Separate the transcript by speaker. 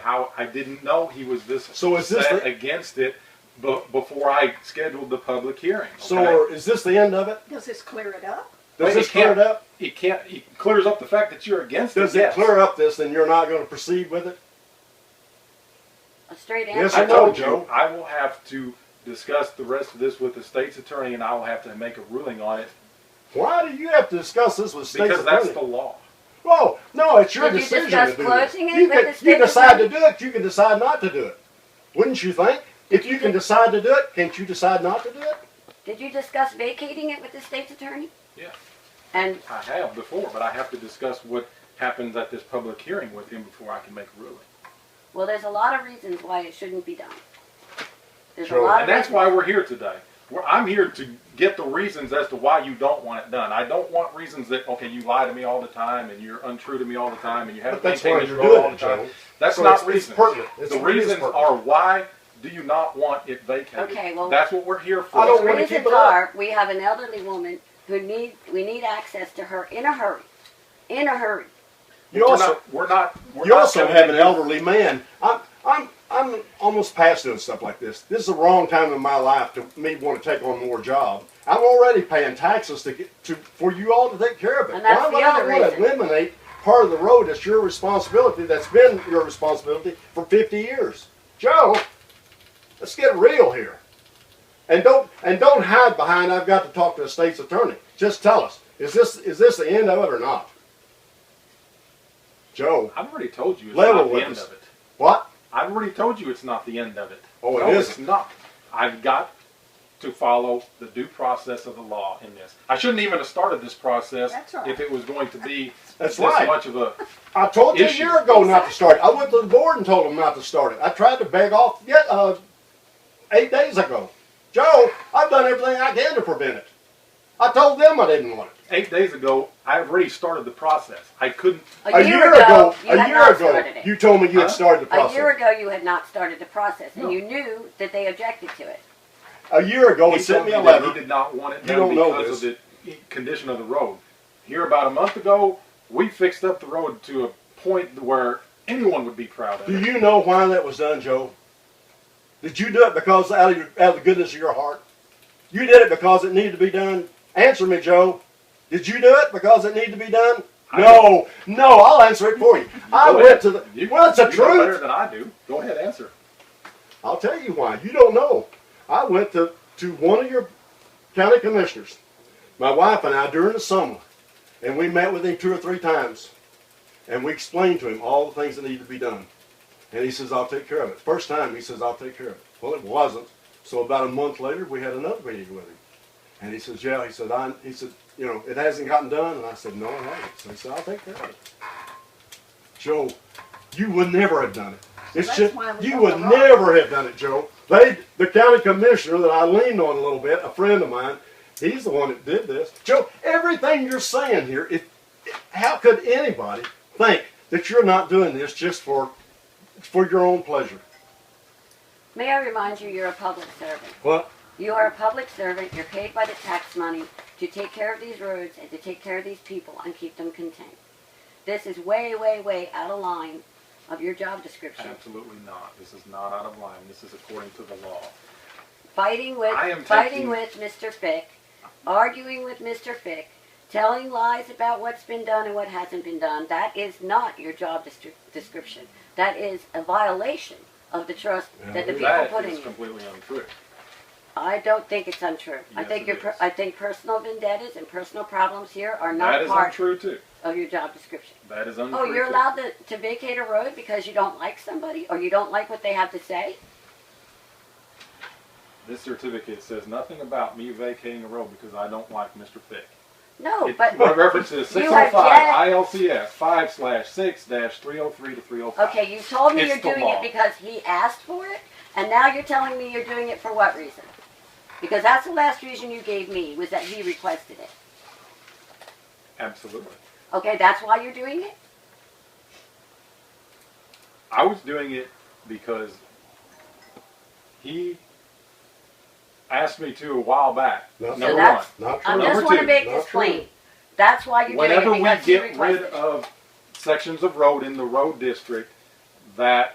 Speaker 1: how I didn't know he was this
Speaker 2: So is this
Speaker 1: set
Speaker 2: the-
Speaker 1: against it be- before I scheduled the public hearing. okay?
Speaker 2: So is this the end of it?
Speaker 3: Does this clear it up?
Speaker 2: Does
Speaker 1: Wait,
Speaker 2: this
Speaker 1: it
Speaker 2: clear
Speaker 1: can't-
Speaker 2: it up?
Speaker 1: it can't it clears up the fact that you're against
Speaker 2: Does
Speaker 1: it.
Speaker 2: it clear up this and you're not going to proceed with it?
Speaker 4: A straight
Speaker 2: Yes,
Speaker 1: I
Speaker 2: sir.
Speaker 4: answer.
Speaker 1: told
Speaker 2: Joe.
Speaker 1: you I will have to discuss the rest of this with the state's attorney, and I will have to make a ruling on it
Speaker 2: Why do you have to discuss this with state's
Speaker 1: because that's
Speaker 2: attorney?
Speaker 1: the law.
Speaker 2: Oh, no, it's your
Speaker 4: Did you
Speaker 2: decision
Speaker 4: discuss
Speaker 2: to do
Speaker 4: closing
Speaker 2: it.
Speaker 4: it
Speaker 2: You
Speaker 4: with
Speaker 2: can,
Speaker 4: the
Speaker 2: you
Speaker 4: state
Speaker 2: decide to
Speaker 4: attorney?
Speaker 2: do it. You can decide not to do it. Wouldn't you think? If you can decide to do it, can't you decide not to do it?
Speaker 4: Did you discuss vacating it with the state's attorney?
Speaker 1: Yeah.
Speaker 4: And
Speaker 1: I have before, but I have to discuss what happens at this public hearing with him before I can make a ruling.
Speaker 4: well, there's a lot of reasons why it shouldn't be done. There's a
Speaker 2: Sure.
Speaker 4: lot
Speaker 1: And
Speaker 4: of
Speaker 1: that's
Speaker 4: reasons.
Speaker 1: why we're here today. We're, I'm here to get the reasons as to why you don't want it done. I don't want reasons that okay, you lie to me all the time, and you're untrue to me all the time, and you have
Speaker 2: But that's
Speaker 1: maintain
Speaker 2: why
Speaker 1: this
Speaker 2: you're
Speaker 1: role
Speaker 2: doing
Speaker 1: all
Speaker 2: it,
Speaker 1: the time.
Speaker 2: Joe.
Speaker 1: That's
Speaker 2: So
Speaker 1: not
Speaker 2: it's- it's
Speaker 1: reasons.
Speaker 2: pertinent. It's
Speaker 1: the
Speaker 2: really
Speaker 1: reasons
Speaker 2: pertinent.
Speaker 1: are why do you not want it vacated?
Speaker 4: Okay, well-
Speaker 1: that's what we're here for.
Speaker 2: I don't
Speaker 4: The
Speaker 2: wanna
Speaker 4: reasons
Speaker 2: keep it up.
Speaker 4: are, we have an elderly woman who need, we need access to her in a hurry, in a hurry.
Speaker 2: You
Speaker 1: we're
Speaker 2: also,
Speaker 1: not. We're not we're
Speaker 2: you
Speaker 1: not
Speaker 2: also
Speaker 1: telling
Speaker 2: have an
Speaker 1: you-
Speaker 2: elderly man. I'm, I'm, I'm almost past doing stuff like this. This is the wrong time in my life to me want to take on more job. I'm already paying taxes to get to for you all to take care of it.
Speaker 4: And that's
Speaker 2: Why would
Speaker 4: the
Speaker 2: I
Speaker 4: other
Speaker 2: want to
Speaker 4: reason.
Speaker 2: eliminate part of the road that's your responsibility? That's been your responsibility for 50 years, Joe. Let's get real here, and don't and don't hide behind. I've got to talk to the state's attorney. Just tell us, is this is this the end of it or not, Joe?
Speaker 1: I've already told you it's
Speaker 2: Level
Speaker 1: not the
Speaker 2: with
Speaker 1: end
Speaker 2: us.
Speaker 1: of it.
Speaker 2: What?
Speaker 1: I've already told you it's not the end of it.
Speaker 2: Oh, it
Speaker 1: no, It's
Speaker 2: isn't.
Speaker 1: not. I've got to follow the due process of the law in this. I shouldn't even have started this process
Speaker 3: That's right.
Speaker 1: if it was going to be
Speaker 2: That's
Speaker 1: this
Speaker 2: right.
Speaker 1: much of a.
Speaker 2: I told you
Speaker 1: issue.
Speaker 2: a year ago not to start it. I went to the board and told them not to start it. I tried to beg off yeah, uh, eight days ago. Joe, I've done everything I can to prevent it. I told them I didn't want it.
Speaker 1: Eight days ago, I already started the process. I couldn't.
Speaker 4: A year ago, you
Speaker 2: a
Speaker 4: had
Speaker 2: year
Speaker 4: not
Speaker 2: ago,
Speaker 4: started
Speaker 2: you
Speaker 4: it.
Speaker 2: told me you
Speaker 1: Huh?
Speaker 2: had started the
Speaker 4: A year
Speaker 2: process.
Speaker 4: ago, you had not started the process,
Speaker 1: No.
Speaker 4: and you knew that they objected to it.
Speaker 2: A year ago, he
Speaker 1: told
Speaker 2: sent me a
Speaker 1: that He
Speaker 2: letter.
Speaker 1: did not want it
Speaker 2: You
Speaker 1: done
Speaker 2: don't know
Speaker 1: because of the condition of the road. Here, about a month ago, we fixed up the road to a point where anyone would be proud of
Speaker 2: Do
Speaker 1: it.
Speaker 2: you know why that was done, Joe? Did you do it because out of, your, out of the goodness of your heart? You did it because it needed to be done? Answer me, Joe. Did you do it because it needed to be done?
Speaker 1: I-
Speaker 2: No, no, I'll answer it for you. I
Speaker 1: Go
Speaker 2: went
Speaker 1: ahead.
Speaker 2: to the.
Speaker 1: You,
Speaker 2: well, it's the
Speaker 1: you know better
Speaker 2: truth.
Speaker 1: than I do. Go ahead, answer.
Speaker 2: I'll tell you why. You don't know. I went to, to one of your county commissioners, my wife and I, during the summer, and we met with him two or three times, and we explained to him all the things that needed to be done. And he says, I'll take care of it. First time, he says, I'll take care of it. Well, it wasn't. So about a month later, we had another meeting with him. And he says, yeah, he said, I, he said, you know, it hasn't gotten done. And I said, no, it hasn't. So he said, I'll take care of it. Joe, you would never have done it. It's
Speaker 3: that's
Speaker 2: just,
Speaker 3: why we
Speaker 2: you
Speaker 3: got
Speaker 2: would
Speaker 3: the rock.
Speaker 2: never have done it, Joe. They, the county commissioner that I leaned on a little bit, a friend of mine, he's the one that did this. Joe, everything you're saying here, if, how could anybody think that you're not doing this just for for your own pleasure?
Speaker 4: May I remind you, you're a public servant.
Speaker 2: What?
Speaker 4: You are a public servant, you're paid by the tax money to take care of these roads and to take care of these people and keep them content. This is way, way, way out of line of your job description.
Speaker 1: Absolutely not. This is not out of line. This is according to the law.
Speaker 4: Fighting with,
Speaker 1: I am taking-
Speaker 4: fighting with Mr. Fick, arguing with Mr. Fick, telling lies about what's been done and what hasn't been done. That is not your job destri- description. That is a violation of the trust that the people
Speaker 1: That
Speaker 4: put in
Speaker 1: is
Speaker 4: you.
Speaker 1: completely untrue.
Speaker 4: I don't think it's untrue. I
Speaker 1: Yes,
Speaker 4: think
Speaker 1: it
Speaker 4: your per-
Speaker 1: is.
Speaker 4: I think personal vendettas and personal problems here are
Speaker 1: That
Speaker 4: not
Speaker 1: is
Speaker 4: part
Speaker 1: untrue too.
Speaker 4: of your job description.
Speaker 1: That is untrue.
Speaker 4: Oh, you're
Speaker 1: too.
Speaker 4: allowed to, to vacate a road because you don't like somebody or you don't like what they have to say?
Speaker 1: This certificate says nothing about me vacating a road because I don't like Mr. Fick.
Speaker 4: No,
Speaker 1: It
Speaker 4: Oh, but
Speaker 1: references
Speaker 4: you
Speaker 1: six oh five
Speaker 4: are
Speaker 1: ILCS five slash six dash three oh three to three oh five.
Speaker 4: okay, you told me
Speaker 1: It's
Speaker 4: you're
Speaker 1: the
Speaker 4: doing
Speaker 1: law.
Speaker 4: it because he asked for it, and now you're telling me you're doing it for what reason? Because that's the last reason you gave me was that he requested it.
Speaker 1: Absolutely.
Speaker 4: Okay, that's why you're doing it.
Speaker 1: I was doing it because he asked me to a while back.
Speaker 2: No. So
Speaker 1: Number one.
Speaker 4: that's-
Speaker 2: Not
Speaker 4: I
Speaker 2: true.
Speaker 4: just
Speaker 1: Number
Speaker 4: want to
Speaker 1: two,
Speaker 4: make
Speaker 2: not
Speaker 4: this
Speaker 2: true.
Speaker 4: plain. That's why you're doing
Speaker 1: Whenever
Speaker 4: it
Speaker 1: we
Speaker 4: because he
Speaker 1: get
Speaker 4: requested
Speaker 1: rid
Speaker 4: it.
Speaker 1: of sections of road in the road district that